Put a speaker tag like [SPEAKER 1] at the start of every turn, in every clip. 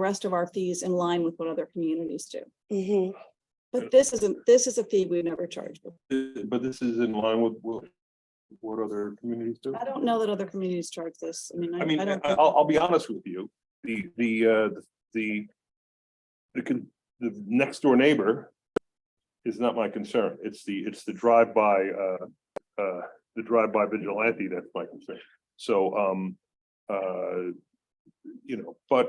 [SPEAKER 1] rest of our fees in line with what other communities do.
[SPEAKER 2] Mhm.
[SPEAKER 1] But this isn't, this is a fee we've never charged. before.
[SPEAKER 3] Uh, But this is in line with what, what other communities do.
[SPEAKER 1] I don't know that other communities charge this. I mean, I
[SPEAKER 3] I mean,
[SPEAKER 1] I
[SPEAKER 3] I-
[SPEAKER 1] don't.
[SPEAKER 3] I'll, I'll be honest with you, the, the, uh, the, the, con- the next door neighbor is not my concern. It's the, it's the drive-by, uh, uh, the drive-by vigilante that's my concern. So, um, uh, you know, but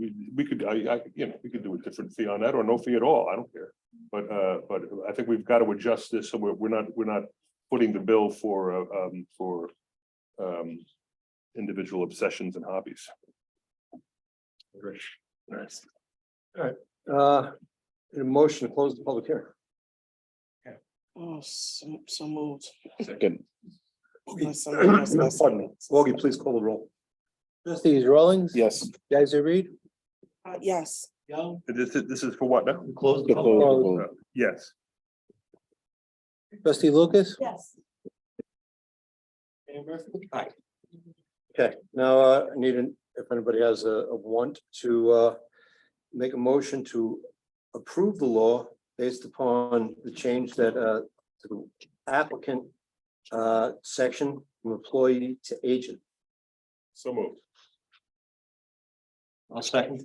[SPEAKER 3] we, we could, I, I, you know, we could do a different fee on that or no fee at all. I don't care. But, uh, but I think we've got to adjust this. So we're, we're not, we're not putting the bill for, uh, um, for, um, individual obsessions and hobbies.
[SPEAKER 4] Uh, a motion to close the public hearing.
[SPEAKER 2] Oh, so, so moved.
[SPEAKER 5] Second.
[SPEAKER 2] Unless someone else does
[SPEAKER 4] Pardon me.
[SPEAKER 2] something.
[SPEAKER 4] Woggy, please call the roll.
[SPEAKER 6] Trustees Rollins?
[SPEAKER 5] Yes.
[SPEAKER 6] Guys, Reed?
[SPEAKER 2] Uh, Yes,
[SPEAKER 6] Young.
[SPEAKER 3] This is, this is for what now?
[SPEAKER 4] Close
[SPEAKER 5] The close, the
[SPEAKER 3] Yes.
[SPEAKER 6] Trustee Lucas?
[SPEAKER 1] Yes.
[SPEAKER 6] Mayor Murphy?
[SPEAKER 4] Okay, now, uh, I need, an- if anybody has a, a want to, uh, make a motion to approve the law based upon the change that, uh, to the applicant, uh, section from employee to agent.
[SPEAKER 3] So moved.
[SPEAKER 4] I'll second.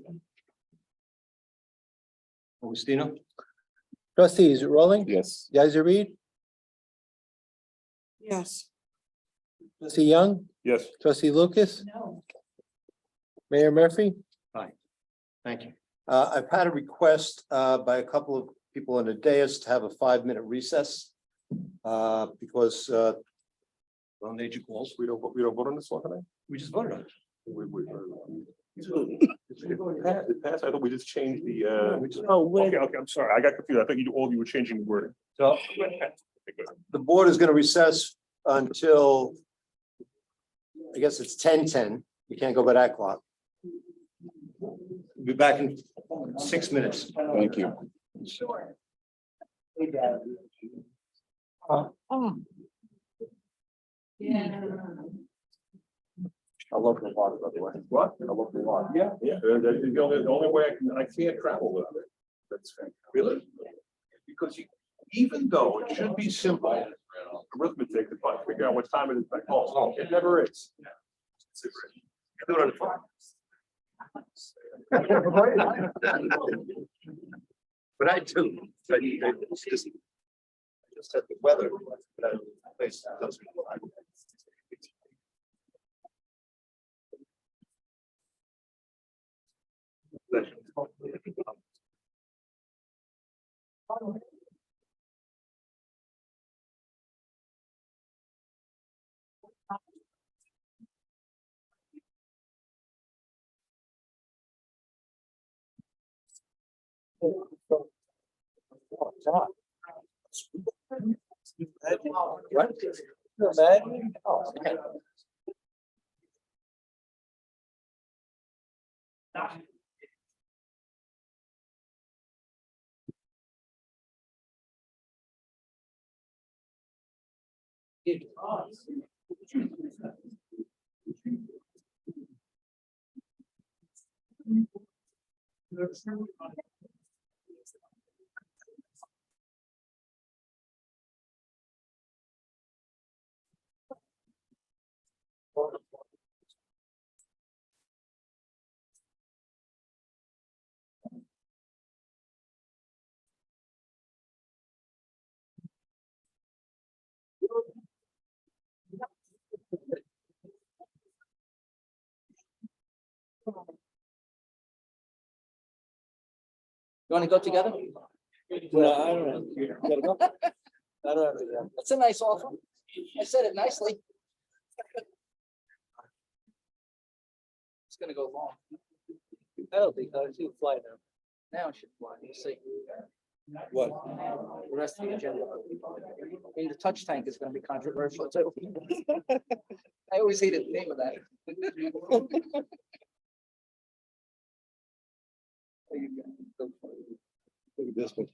[SPEAKER 4] Augustino?
[SPEAKER 6] Trustees Rollins?
[SPEAKER 5] Yes.
[SPEAKER 6] Guys, Reed?
[SPEAKER 2] yes,
[SPEAKER 6] Trustee Young?
[SPEAKER 3] Yes.
[SPEAKER 6] Trustee Lucas?
[SPEAKER 1] No.
[SPEAKER 6] Mayor Murphy?
[SPEAKER 4] Thank you.
[SPEAKER 6] Uh,
[SPEAKER 4] I've had a request uh, by a couple of people on the dais to have a five-minute recess uh, because uh, well, nature calls.
[SPEAKER 3] We don't, we don't vote on this one tonight?
[SPEAKER 4] We just voted on it.
[SPEAKER 3] We, we. It passed- it passed. I thought we just changed the, uh,
[SPEAKER 2] oh, with,
[SPEAKER 3] okay, okay, I'm sorry. I got confused. I thought you, all of you were changing the word.
[SPEAKER 4] So the board is going to recess until I guess it's ten-ten. We can't go by that clock. Be back in six minutes.
[SPEAKER 5] Thank you.
[SPEAKER 4] I love the water, by the way.
[SPEAKER 3] What?
[SPEAKER 4] I love the water.
[SPEAKER 3] Yeah, yeah. uh, That is the only, the only way I can, I can't travel without it. That's fair. Really? Because you, even though it should be simple arithmetic to fi- figure out what time it is back home, it never is. Do it on the phone.
[SPEAKER 4] But I do. but it's just- Just at the weather. but I- place doesn't-
[SPEAKER 7] You wanna go together?
[SPEAKER 6] Well, I don't know. I don't know.
[SPEAKER 7] That's a nice offer. I said it nicely. It's gonna go long. I don't think,
[SPEAKER 6] uh,
[SPEAKER 7] I should fly now. Now it should fly, you see.
[SPEAKER 6] What?
[SPEAKER 7] The rest of the agenda. I mean, the touch tank is gonna be controversial too. I always hated the name of that. There you go. Go for it.
[SPEAKER 4] Look at this one.